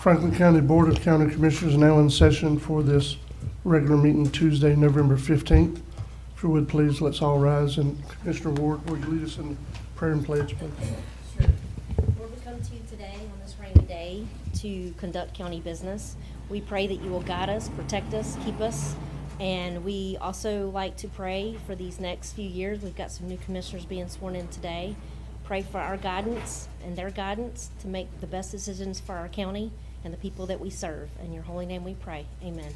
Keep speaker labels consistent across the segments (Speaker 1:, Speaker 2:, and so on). Speaker 1: Franklin County Board of County Commissioners now in session for this regular meeting Tuesday, November 15th. If you would, please, let's all rise, and Commissioner Ward, will you lead us in prayer and pledge, please?
Speaker 2: Sure. Lord, we come to you today on this rainy day to conduct county business. We pray that you will guide us, protect us, keep us, and we also like to pray for these next few years. We've got some new commissioners being sworn in today. Pray for our guidance and their guidance to make the best decisions for our county and the people that we serve. In your holy name we pray. Amen.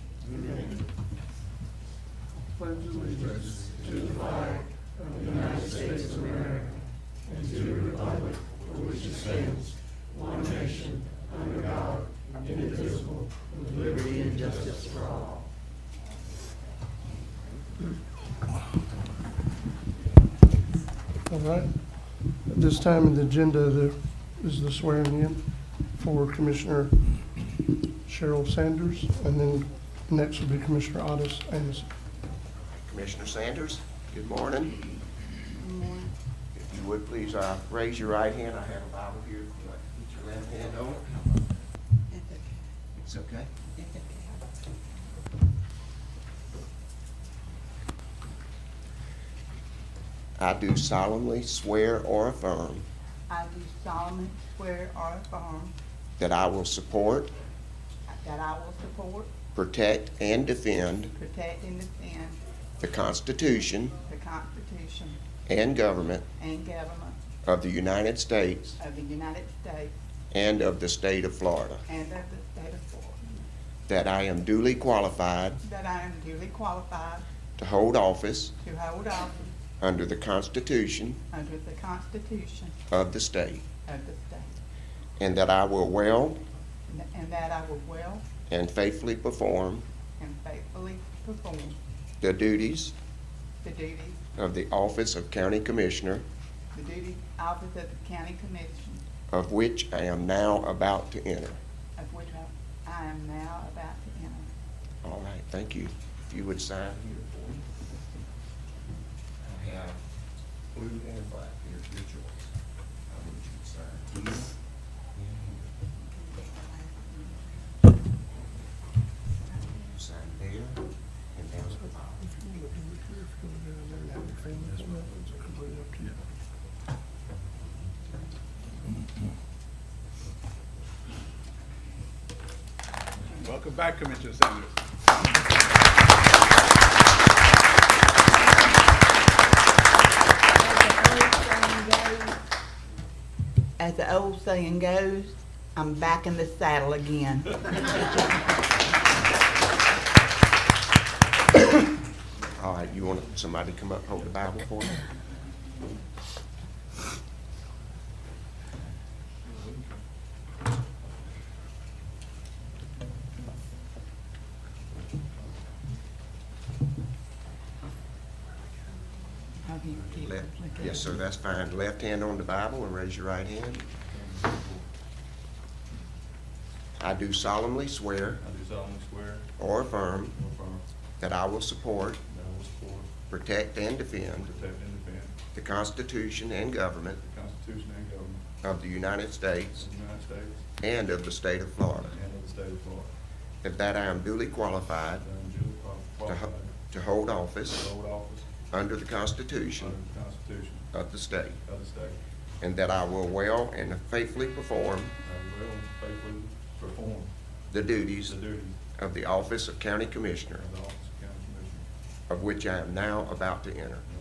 Speaker 1: All right. At this time in the agenda, there is the swearing in for Commissioner Cheryl Sanders, and then next will be Commissioner Otis Amos.
Speaker 3: Commissioner Sanders, good morning. If you would, please uh, raise your right hand. I have a Bible here. If you'd like to Put your left hand on it. It's okay. I do solemnly swear or affirm
Speaker 4: I do solemnly swear or affirm
Speaker 3: that I will support,
Speaker 4: that I will support,
Speaker 3: protect, and defend
Speaker 4: protect, and defend
Speaker 3: the Constitution
Speaker 4: the Constitution
Speaker 3: and government
Speaker 4: and government
Speaker 3: of the United States
Speaker 4: of the United States
Speaker 3: and of the state of Florida,
Speaker 4: and of the state of Florida,
Speaker 3: that I am duly qualified
Speaker 4: that I am duly qualified
Speaker 3: to hold office
Speaker 4: to hold office
Speaker 3: under the Constitution
Speaker 4: under the Constitution
Speaker 3: of the state,
Speaker 4: of the state,
Speaker 3: and that I will well
Speaker 4: and- and that I will well
Speaker 3: and faithfully perform
Speaker 4: and faithfully perform
Speaker 3: the duties
Speaker 4: the duties,
Speaker 3: of the office of County Commissioner,
Speaker 4: the duties office of the county commission,
Speaker 3: of which I am now about to enter.
Speaker 4: of which I- I am now about to enter.
Speaker 3: All right, thank you. If you would sign here for me. I have blue and black here, your choice. I want you to sign here and here. Sign there, and there's the bottom.
Speaker 5: Welcome back, Commissioner Sanders.
Speaker 4: As the old saying goes, I'm back in the saddle again.
Speaker 3: All right, you want somebody to come up, and hold the Bible for you? Left, yes, sir, that's fine. Left hand on the Bible and raise your right hand. I do solemnly swear
Speaker 6: I do solemnly swear
Speaker 3: or affirm
Speaker 6: or affirm
Speaker 3: that I will support,
Speaker 6: that I will support,
Speaker 3: protect, and defend
Speaker 6: protect, and defend
Speaker 3: the Constitution and government
Speaker 6: the Constitution and government
Speaker 3: of the United States
Speaker 6: of the United States
Speaker 3: and of the state of Florida,
Speaker 6: and of the state of Florida,
Speaker 3: and that I am duly qualified
Speaker 6: that I am duly
Speaker 3: to
Speaker 6: qualified
Speaker 3: ho- to hold
Speaker 6: to
Speaker 3: office
Speaker 6: hold office
Speaker 3: under the
Speaker 6: under
Speaker 3: Constitution
Speaker 6: the Constitution
Speaker 3: of the state,
Speaker 6: of the state,
Speaker 3: and that I will well and faithfully perform
Speaker 6: and I will faithfully perform
Speaker 3: the duties
Speaker 6: the duties
Speaker 3: of the office of County Commissioner,
Speaker 6: of the office of county commissioner,
Speaker 3: of which I am now about to enter.
Speaker 6: and